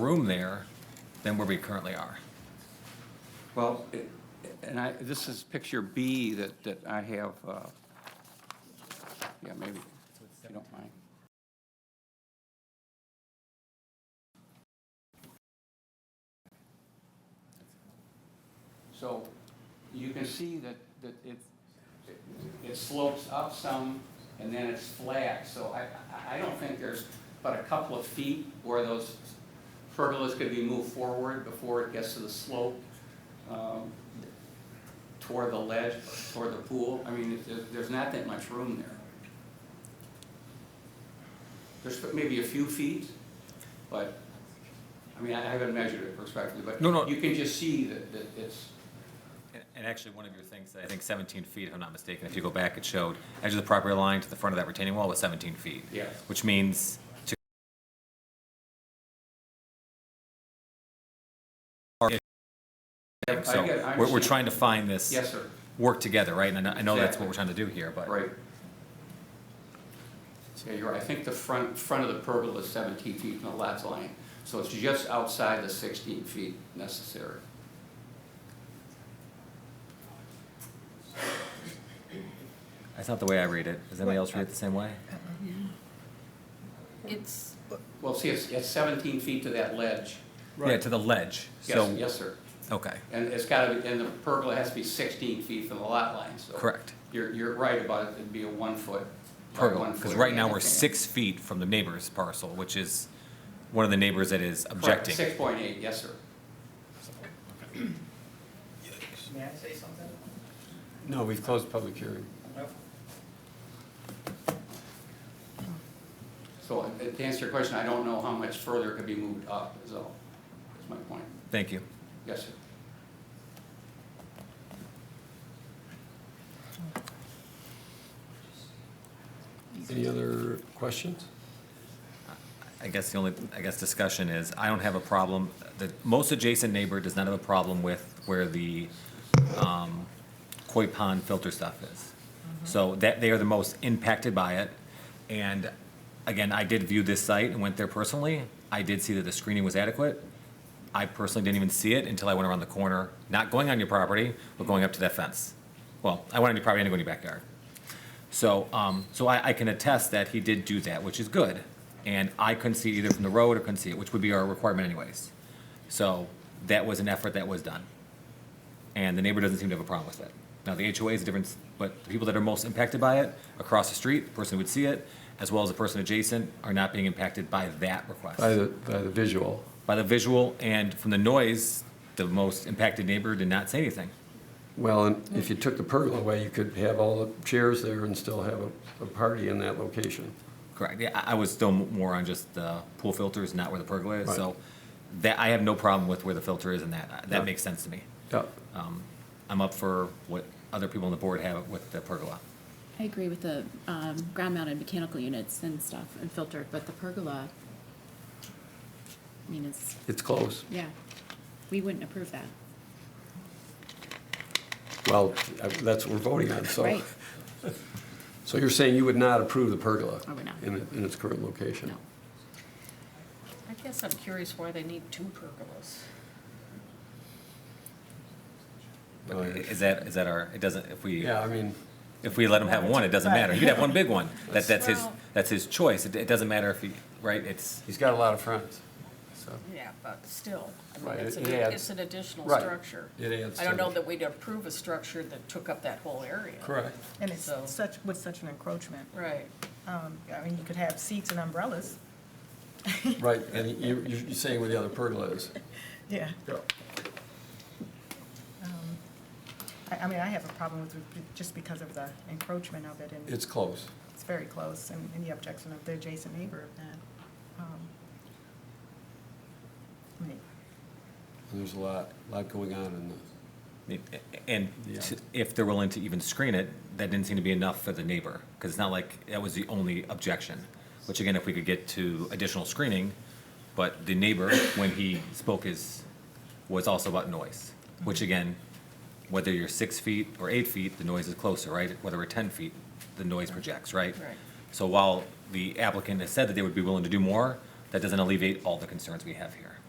room there than where we currently are. Well, it- and I, this is picture B that, that I have, uh, yeah, maybe, if you don't mind. So you can see that, that it, it slopes up some and then it's flat. So I, I- I don't think there's but a couple of feet where those pergolas could be moved forward before it gets to the slope um, toward the ledge, toward the pool. I mean, it- there- there's not that much room there. There's maybe a few feet, but, I mean, I I haven't measured it respectfully, but No, no. you can just see that, that it's, And- And actually, one of your things, I think 17 feet, if I'm not mistaken, if you go back, it showed edge of the property line to the front of that retaining wall was 17 feet. Yeah. Which means to. I get it, I So we're, we're understand. trying to find this. yes, sir, Work together, right? And I know- I know that's Exactly. what we're trying to do here, but. right. Yeah, you're right. I think the front, front of the pergola is 17 feet from the lat line, so it's just outside the 16 feet necessary. That's not the way I read it. Does anybody else read it the same way? It's, Well, see, it's, it's 17 feet to that ledge. Yeah, to the ledge. Yes, So, yes, sir. okay, And it's gotta be, and the pergola has to be 16 feet from the lot line, so. correct. You're, you're right about it, it'd be a one foot. by Pergola, one because foot right now we're handicap. six feet from the neighbor's parcel, which is one of the neighbors that is Correct, objecting. 6.8, yes, sir. May I say something? No, we've closed public hearing. So uh, to answer your question, I don't know how much further it could be moved up, is all, is my point. Thank you. Yes, sir. Any other questions? I guess the only, I guess discussion is, I don't have a problem, the most adjacent neighbor does not have a problem with where the um, koi pond filter stuff is. Mm-hmm. So that, they are the most impacted by it. And again, I did view this site and went there personally. I did see that the screening was adequate. I personally didn't even see it until I went around the corner, not going on your property, but going up to that fence. Well, I went on your property and I didn't go in your backyard. So, um, so I, I can attest that he did do that, which is good. And I couldn't see either from the road or couldn't see it, which would be our requirement anyways. So that was an effort that was done. And the neighbor doesn't seem to have a problem with it. Now, the HOA is a difference, but the people that are most impacted by it, across the street, the person who would see it, as well as the person adjacent, are not being impacted by that request. By the, by the visual. By the visual and from the noise, the most impacted neighbor did not say anything. Well, and if you took the pergola away, you could have all the chairs there and still have a, a party in that location. Correct. Yeah, I I was still more on just the pool filters, not where the pergola is. Right. So that, I have no problem with where the filter is and that. Yeah. That makes sense to me. Yeah, Um, I'm up for what other people on the board have with the pergola. I agree with the um, ground-mounted mechanical units and stuff and filtered, but the pergola, I mean, it's, it's close. yeah, we wouldn't approve that. Well, I- that's what we're voting on, so. Right. So you're saying you would not approve the pergola? I would not. In, it- in its current location? No. I guess I'm curious why they need two pergolas. But Oh, i- yeah. is that, is that our, it doesn't, if we, Yeah, I mean, if we let him have one, it doesn't matter. You'd have one big one. That, that's his, Well- that's his choice. It, it doesn't matter if he, right? It's, he's got a lot of friends, so. Yeah, but still, I mean, Right, it's it an, adds- it's an additional right. structure. It adds I don't to know the- that we'd approve a structure that took up that whole area. Correct. And it's So- such, with such an encroachment. Right. Um, I mean, you could have seats and umbrellas. Right, and you, you- you're saying where the other pergola is. Yeah. Yeah. Um, I, I mean, I have a problem with, it just because of the encroachment of it, and It's close. it's very close, and and the objection of the adjacent neighbor of that. Um, I mean, And There's a lot, lot going on in the. and Yeah. to- if they're willing to even screen it, that didn't seem to be enough for the neighbor. Because it's not like that was the only objection, which again, if we could get to additional screening, but the neighbor, when he spoke his, was also about noise, which again, whether you're six feet or eight feet, the noise is closer, right? Whether we're 10 feet, the noise projects, right? Right. So while the applicant has said that they would be willing to do more, that doesn't alleviate all the concerns we have here.